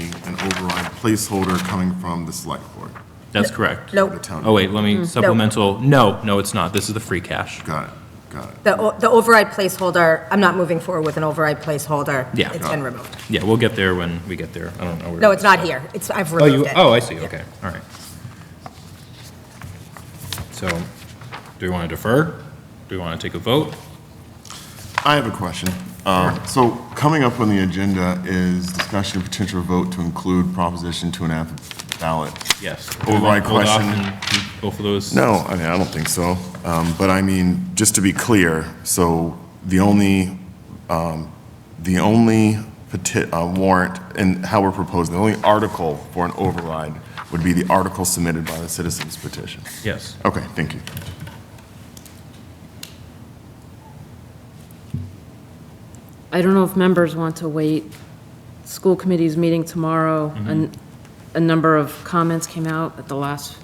an override placeholder coming from the select board. That's correct. The No, town. Oh, wait, let me, supplemental, no, no, it's not. This is the free cash. Got it, got it. the, o- the override placeholder, I'm not moving forward with an override placeholder. Yeah. Oh. It's been removed. Yeah, we'll get there when we get there. I don't know. where No, it it's is. not here. It's, I've Oh, you, removed it. oh, I see, okay, all right. So, do we want to defer? Do we want to take a vote? I have a question. Um, So coming up on the agenda is discussion of potential vote to include Proposition 2.5 ballot. Yes. Override Hold off question. and Both of those? No, I mean, I don't think so. Um, But I mean, just to be clear, so the only, um, the only peti- uh, warrant, and how we're proposing, the only article for an override would be the article submitted by the citizens petition. Yes. Okay, thank you. I don't know if members want to wait. School committee's meeting tomorrow, and a number of comments came out at the last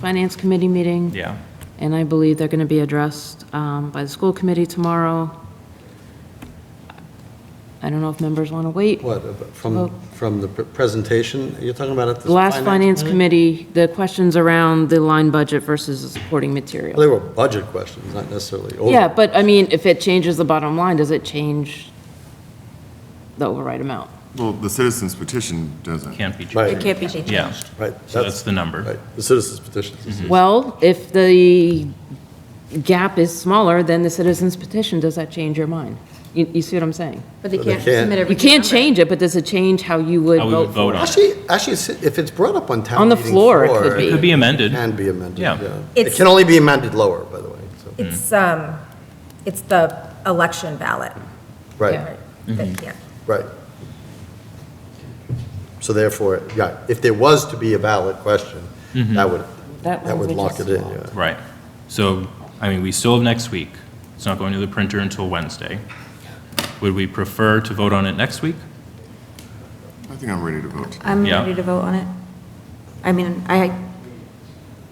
finance committee meeting. Yeah, And I believe they're going to be addressed um, by the school committee tomorrow. I don't know if members want to wait. What, ab- Well- from, from the pre- presentation you're talking about at the The last finance committee? committee, the questions around the line budget versus the supporting Well, They material. were budget questions, not necessarily over. Yeah, but I mean, if it changes the bottom line, does it change the override amount? Well, the citizens petition doesn't. can't be changed. Right, It can't be changed. Yeah, right. so that's the number. Mm-hmm. Right, the citizens petitions. Mm-hmm. Well, if the gap is smaller than the citizen's petition, does that change your mind? You, you see what I'm saying? But they But they can't can't. submit every. You can't change it, but does it change how you would How we would vote for vote on it? it. Actually, actually, it's- if it's brought up on town On the meeting floor, it could floor, be. Could be amended. Can be amended, Yeah. yeah. It It's- can only be amended lower, by the way, so, It's, um, it's the election ballot. right, They Mm-hmm. can't. right. So therefore, yeah, if there was to be a valid question, Mm-hmm. that would, That that would language lock is it in, small. yeah. Right. So, I mean, we still have next week. It's not going to the printer until Wednesday. Would we prefer to vote on it next week? I think I'm ready to vote. I'm Yeah. ready to vote on it. I mean, I,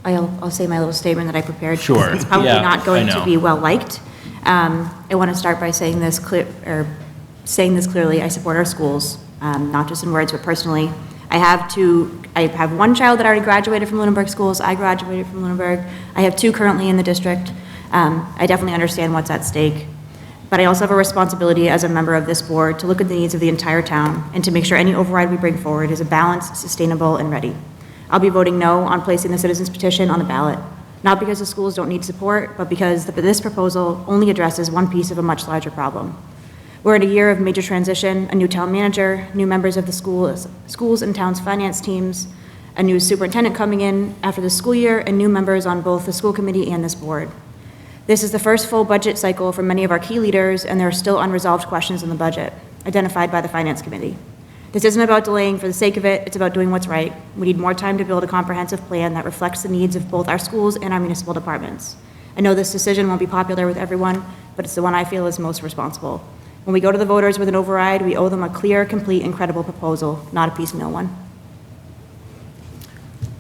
I'll, I'll say my little statement that I prepared. because Sure. It's probably Yeah, not I going to know. be well-liked. Um, I want to start by saying this clear, or saying this clearly, I support our schools, um, not just in words, but personally. I have two, I have one child that already graduated from Lunenburg schools, I graduated from Lunenburg. I have two currently in the district. Um, I definitely understand what's at stake. But I also have a responsibility as a member of this board to look at the needs of the entire town and to make sure any override we bring forward is a balanced, sustainable, and ready. I'll be voting no on placing the citizens petition on the ballot, not because the schools don't need support, but because the- this proposal only addresses one piece of a much larger problem. We're in a year of major transition, a new town manager, new members of the schools, schools and town's finance teams, a new superintendent coming in after the school year, and new members on both the school committee and this board. This is the first full budget cycle for many of our key leaders, and there are still unresolved questions in the budget, identified by the Finance Committee. This isn't about delaying for the sake of it, it's about doing what's right. We need more time to build a comprehensive plan that reflects the needs of both our schools and our municipal departments. I know this decision won't be popular with everyone, but it's the one I feel is most responsible. When we go to the voters with an override, we owe them a clear, complete, and credible proposal, not a piecemeal one.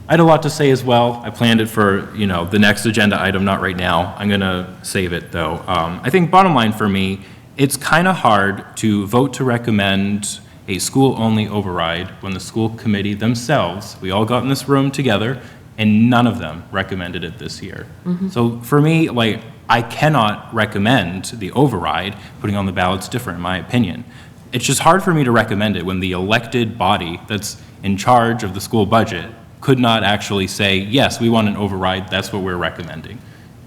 I had a lot to say as well. I planned it for, you know, the next agenda item, not right now. I'm going to save it, though. Um, I think bottom line for me, it's kind of hard to vote to recommend a school-only override when the school committee themselves, we all got in this room together, and none of them recommended it this year. So for me, like, I cannot recommend the override. Putting on the ballot's different, in my opinion. It's just hard for me to recommend it when the elected body that's in charge of the school budget could not actually say, yes, we want an override, that's what we're recommending.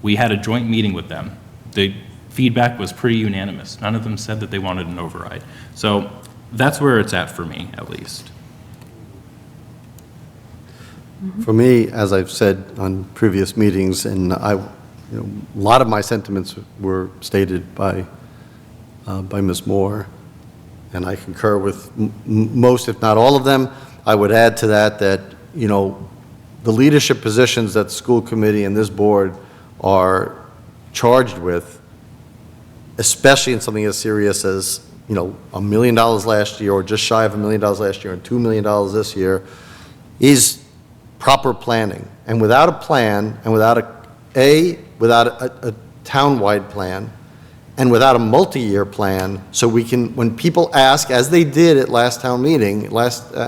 We had a joint meeting with them. The feedback was pretty unanimous. None of them said that they wanted an override. So that's where it's at for me, at least. For me, as I've said on previous meetings, and I, you know, a lot of my sentiments were stated by, uh, by Ms. Moore, and I concur with m- m- most, if not all of them. I would add to that that, you know, the leadership positions that the school committee and this board are charged with, especially in something as serious as, you know, a million dollars last year, or just shy of a million dollars last year, and $2 million this year, is proper planning. And without a plan, and without a, A, without a, a town-wide plan, and without a multi-year plan, so we can, when people ask, as they did at last uh, town meeting, last,